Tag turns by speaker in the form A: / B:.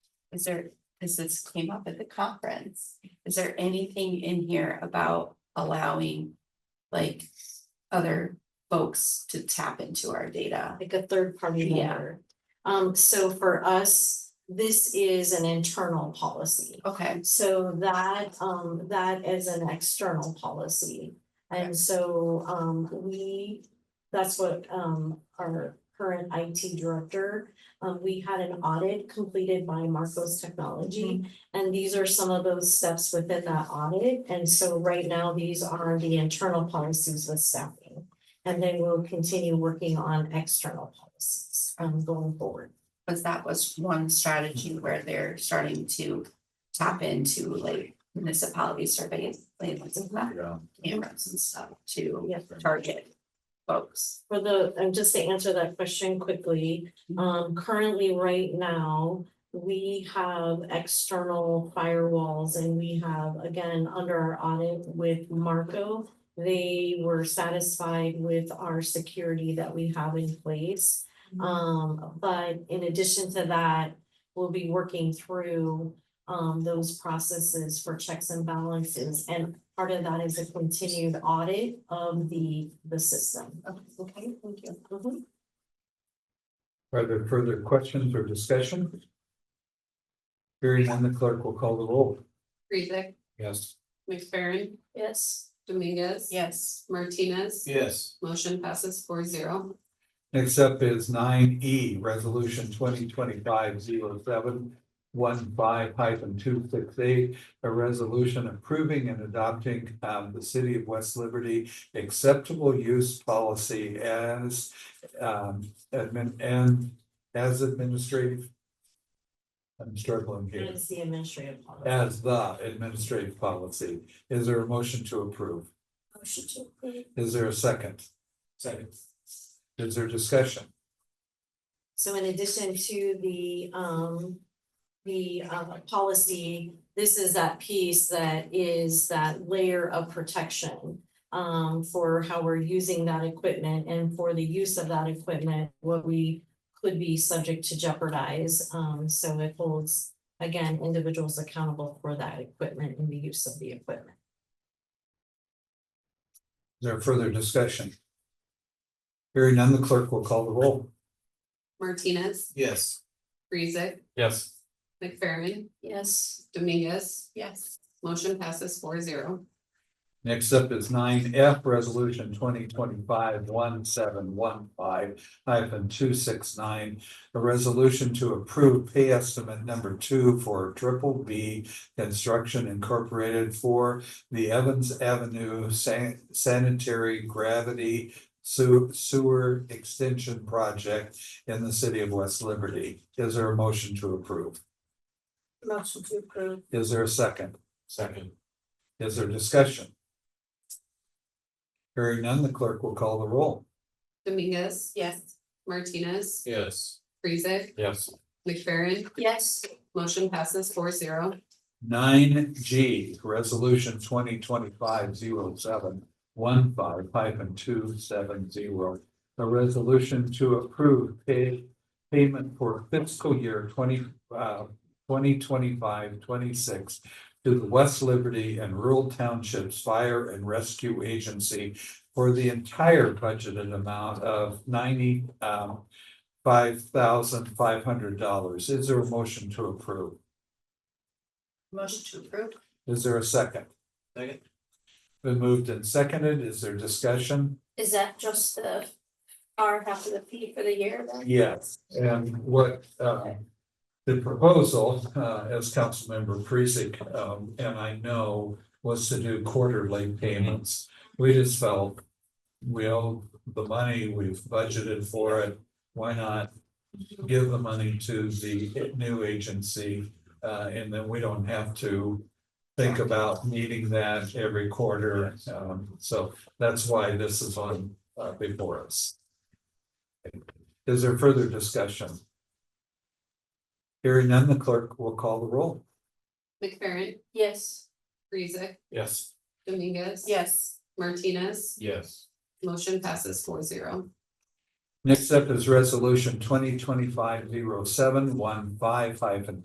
A: Is there, this is came up at the conference, is there anything in here about allowing like other folks to tap into our data?
B: like a third party
A: Yeah.
B: member. Um, so for us, this is an internal policy.
A: Okay,
B: So that, um, that is an external policy. And so, um, we, that's what, um, our current IT director, um, we had an audit completed by Marcos Technology. And these are some of those steps within that audit. And so right now, these are the internal policies with staffing. And then we'll continue working on external policies, um, going forward.
A: because that was one strategy where they're starting to tap into like municipality surveys, like what's in that,
C: Yeah.
A: cameras and stuff to
B: Yeah.
A: target folks.
B: for the, um, just to answer that question quickly, um, currently right now, we have external firewalls and we have, again, under our audit with Marco, they were satisfied with our security that we have in place. Um, but in addition to that, we'll be working through, um, those processes for checks and balances. And part of that is a continued audit of the, the system.
A: Okay, thank you.
B: Mhm.
C: Are there further questions or discussion? Hearing none, the clerk will call the roll.
D: Rezick,
C: Yes.
D: McFerrin,
B: Yes.
D: Dominguez.
A: Yes,
D: Martinez.
C: Yes.
D: Motion passes four zero.
C: Next up is nine E, resolution twenty twenty-five zero seven one five hyphen two six eight, a resolution approving and adopting um, the city of West Liberty acceptable use policy as um, admin and as administrative. I'm struggling here.
B: It's the administrative policy.
C: as the administrative policy. Is there a motion to approve?
A: Oh,
B: Motion to approve.
C: Is there a second? Second. Is there discussion?
B: So in addition to the, um, the, uh, policy, this is that piece that is that layer of protection um, for how we're using that equipment and for the use of that equipment, what we could be subject to jeopardize. Um, so it holds, again, individuals accountable for that equipment and the use of the equipment.
C: Is there further discussion? Hearing none, the clerk will call the roll.
D: Martinez,
C: Yes.
D: Rezick,
C: Yes.
D: McFerrin,
B: Yes.
D: Dominguez.
A: yes.
D: Motion passes four zero.
C: Next up is nine F, resolution twenty twenty-five one seven one five hyphen two six nine. A resolution to approve pay estimate number two for triple B Construction Incorporated for the Evans Avenue San- Sanitary Gravity Sew- Sewer Extension Project in the city of West Liberty. Is there a motion to approve?
B: Motion to approve.
C: Is there a second? Second. Is there discussion? Hearing none, the clerk will call the roll.
D: Dominguez,
A: Yes.
D: Martinez,
C: Yes.
D: Rezick,
C: Yes.
D: McFerrin,
A: Yes.
D: motion passes four zero.
C: Nine G, resolution twenty twenty-five zero seven one five hyphen two seven zero. A resolution to approve pay payment for fiscal year twenty uh 2025-26 to the West Liberty and Rural Townships Fire and Rescue Agency for the entire budgeted amount of ninety um five thousand five hundred dollars. Is there a motion to approve?
A: Motion to approve?
C: Is there a second? Second. Been moved and seconded. Is there discussion?
E: Is that just the our half of the fee for the year then?
C: Yes. And what, uh, the proposal, uh, as Councilmember Precinct, um, and I know was to do quarterly payments. We just felt we owe the money, we've budgeted for it. Why not give the money to the new agency? Uh, and then we don't have to think about needing that every quarter. Um, so that's why this is on, uh, before us. Is there further discussion? Hearing none, the clerk will call the roll.
D: McFerrin,
E: Yes,
D: Rezick,
C: Yes.
D: Dominguez.
A: Yes.
D: Martinez,
C: Yes.
D: motion passes four zero.
C: Next up is resolution twenty twenty-five zero seven one five hyphen